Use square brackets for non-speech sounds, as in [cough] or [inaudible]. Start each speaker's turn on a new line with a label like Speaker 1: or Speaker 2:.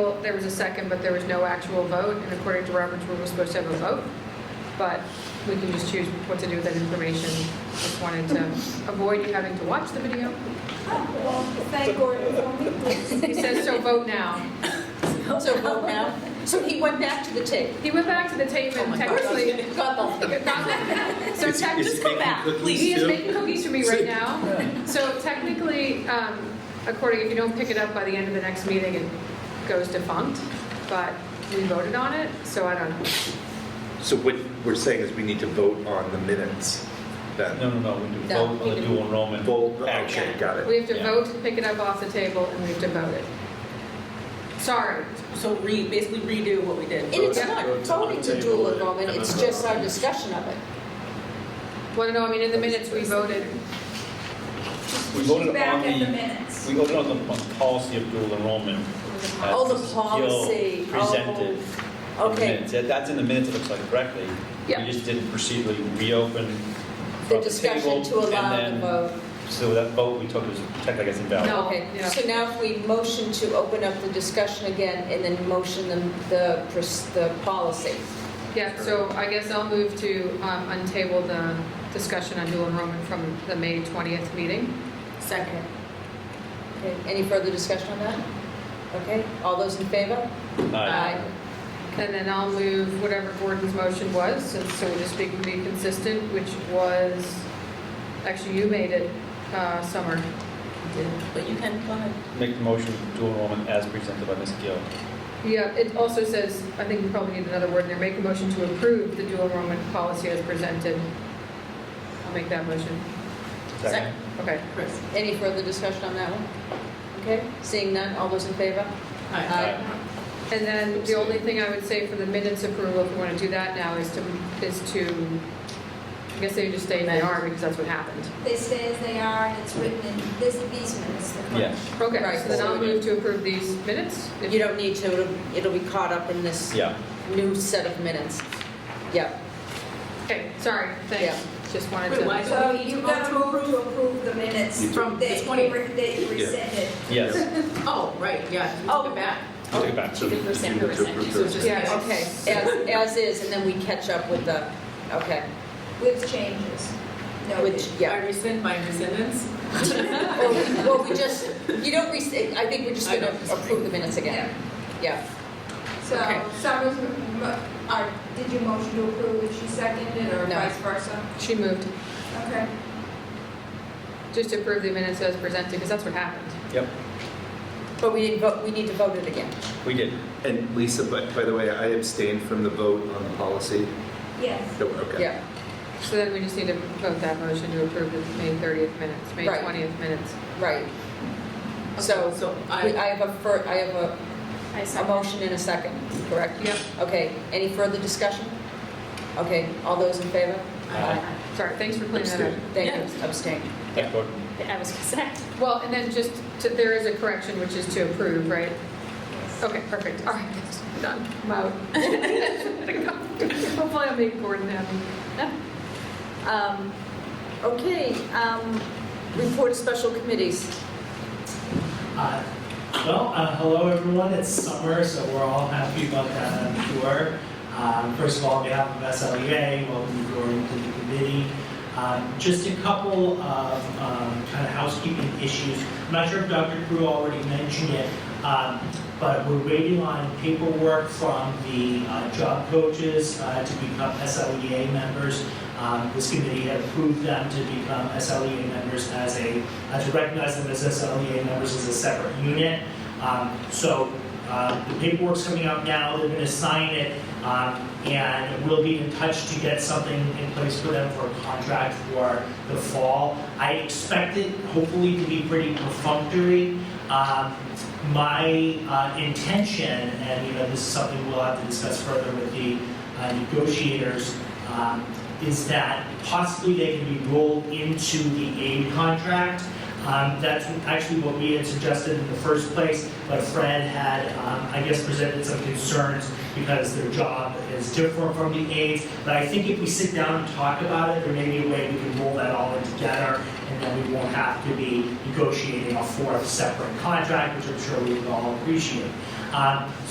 Speaker 1: Well, there was a second, but there was no actual vote, and according to Robert's rule, we're supposed to have a vote, but we can just choose what to do with that information. Just wanted to avoid you having to watch the video.
Speaker 2: Thank Gordon for me.
Speaker 1: He says, so vote now.
Speaker 3: So vote now. So he went back to the tape.
Speaker 1: He went back to the tape
Speaker 3: Oh
Speaker 1: and
Speaker 3: my
Speaker 1: technically.
Speaker 3: gosh. God bless him.
Speaker 1: So
Speaker 4: Is-
Speaker 1: tech,
Speaker 4: is
Speaker 3: just
Speaker 4: he
Speaker 3: come
Speaker 4: making
Speaker 3: back,
Speaker 4: cookies
Speaker 1: he is
Speaker 4: too?
Speaker 1: making cookies for me right now. So technically, um, according, if you don't pick it up by the end of the next meeting, it goes defunct, but we voted on it, so I don't know.
Speaker 4: So what we're saying is we need to vote on the minutes then.
Speaker 5: No, no, no, we do
Speaker 3: No,
Speaker 5: vote
Speaker 1: we
Speaker 5: on the
Speaker 1: can-
Speaker 5: dual enrollment.
Speaker 4: Vote,
Speaker 5: action.
Speaker 4: okay, got
Speaker 1: We
Speaker 4: it.
Speaker 1: have to
Speaker 5: Yeah.
Speaker 1: vote to pick it up off the table, and we have to vote it. Sorry.
Speaker 3: So re, basically redo what we
Speaker 2: And
Speaker 3: did.
Speaker 2: it's not voting to dual enrollment, it's just our discussion of it.
Speaker 1: Well, no, I mean, in the minutes, we voted.
Speaker 5: We voted on
Speaker 2: Back at the
Speaker 5: the,
Speaker 2: minutes.
Speaker 5: we voted on the on policy of dual enrollment. as
Speaker 3: Oh, the
Speaker 5: Gil
Speaker 3: policy. Oh,
Speaker 5: Presented. in the
Speaker 3: okay.
Speaker 5: minutes. That- That's in the minutes, it looks like correctly.
Speaker 1: Yeah.
Speaker 5: We just didn't procedurally reopen
Speaker 3: The
Speaker 5: from the
Speaker 3: discussion
Speaker 5: table.
Speaker 3: to allow the
Speaker 5: and then-
Speaker 3: vote.
Speaker 5: So that vote we took was technically, I guess, invalid.
Speaker 1: No.
Speaker 3: Okay,
Speaker 1: Yeah.
Speaker 3: so now if we motion to open up the discussion again and then motion the, the, pres- the policy.
Speaker 1: Yeah, so I guess I'll move to um, untable the discussion on dual enrollment from the May 20th meeting.
Speaker 3: Second. Okay, any further discussion on that? Okay, all those in favor?
Speaker 5: Aye.
Speaker 1: And then I'll move whatever Gordon's motion was, since so we'll just be be consistent, which was, actually, you made it, uh, Summer.
Speaker 3: But you can, go ahead.
Speaker 5: Make the motion dual enrollment as presented by Ms. Gill.
Speaker 1: Yeah, it also says, I think we probably need another word in there, make a motion to approve the dual enrollment policy as presented. I'll make that motion.
Speaker 5: Second.
Speaker 1: Okay.
Speaker 3: Chris. Any further discussion on that one? Okay, seeing none, all those in favor?
Speaker 5: Aye.
Speaker 1: And then the only thing I would say for the minutes approval, if we want to do that now, is to, is to, I guess they just stay in they are because that's what happened.
Speaker 2: They stay as they are, and it's written in this, these minutes. the correct-
Speaker 5: Yes,
Speaker 1: Okay,
Speaker 3: Right.
Speaker 1: so then I'll move to approve these minutes. if-
Speaker 3: You don't need to, it'll, it'll be caught up in this
Speaker 5: yeah.
Speaker 3: new set of minutes. Yep,
Speaker 1: Okay, sorry, thanks. Just wanted
Speaker 6: Wait, why
Speaker 1: to,
Speaker 6: is
Speaker 2: So you gotta move to approve the minutes
Speaker 4: You do.
Speaker 6: From
Speaker 2: that
Speaker 6: this
Speaker 2: you
Speaker 6: point.
Speaker 2: re- that you rescinded.
Speaker 3: [laughs]
Speaker 5: Yes,
Speaker 6: Oh, right, yeah, you took it back.
Speaker 5: Take it back.
Speaker 6: She did rescind her
Speaker 4: You took
Speaker 6: rescind, she
Speaker 4: her-
Speaker 6: was just.
Speaker 1: Yeah,
Speaker 3: okay, as, as is, and then we catch up with the, okay,
Speaker 2: With changes.
Speaker 3: which,
Speaker 2: Noted.
Speaker 3: yeah.
Speaker 6: I rescind my rescindance.
Speaker 3: Well, we- well, we just, you don't, rec- I think we're just gonna approve the minutes again. Yeah,
Speaker 2: So
Speaker 3: Okay.
Speaker 2: Summer's, m- m- uh, did you motion to approve and she seconded or
Speaker 3: No.
Speaker 2: vice versa?
Speaker 1: she moved,
Speaker 2: Okay.
Speaker 1: just to approve the minutes as presented, because that's what happened.
Speaker 5: yep,
Speaker 3: but we didn't vote, we need to vote it again.
Speaker 5: we did.
Speaker 4: And Lisa, but by the way, I abstained from the vote on the policy.
Speaker 2: Yes.
Speaker 4: No, Okay.
Speaker 3: Yeah,
Speaker 1: So then we just need to vote that motion to approve the May 30th minutes, May
Speaker 3: Right.
Speaker 1: 20th minutes.
Speaker 3: right. So,
Speaker 6: So
Speaker 3: we-
Speaker 6: I,
Speaker 3: I have a fir, I have a,
Speaker 6: I
Speaker 3: a motion and a second, correct?
Speaker 1: Yep,
Speaker 3: Okay, any further discussion? Okay, all those in favor?
Speaker 5: Aye.
Speaker 1: sorry, thanks for cleaning that up.
Speaker 4: Abstained.
Speaker 3: Thank you, abstain.
Speaker 5: Thanks, Gordon.
Speaker 6: I was gonna say.
Speaker 1: Well, and then just, to- there is a correction, which is to approve, right? Okay, perfect, all right, done, I'm out. [laughs] Hopefully I'll make Gordon happy.
Speaker 3: Um, Okay, um, report of special committees.
Speaker 7: Uh, Well, uh, hello everyone, it's summer, so we're all happy about that, I'm sure. Um, First of all, on behalf of SLEA, welcome Gordon to the committee. Um, Just a couple of um, kind of housekeeping issues. I'm not sure if Dr. Crew already mentioned it, um, but we're waiting on paperwork from the uh, job coaches uh, to become SLEA members. Um, This committee had approved them to become SLEA members as a uh, to recognize them as SLEA members as a separate unit. Um, So uh, the paperwork's coming out now, they're going to sign it, um, and we'll be in touch to get something in place for them for a contract for the fall. I expect it hopefully to be pretty perfunctory. Um, My uh, intention, and you know, this is something we'll have to discuss further with the uh, negotiators, um, is that possibly they can be rolled into the aid contract. Um, That's actually what we had suggested in the first place, but Fred had, um, I guess, presented some concerns because their job is different from the aides. But I think if we sit down and talk about it, there may be a way we can roll that all in together, and then we won't have to be negotiating a fourth separate contract, which I'm sure we would all appreciate. Um,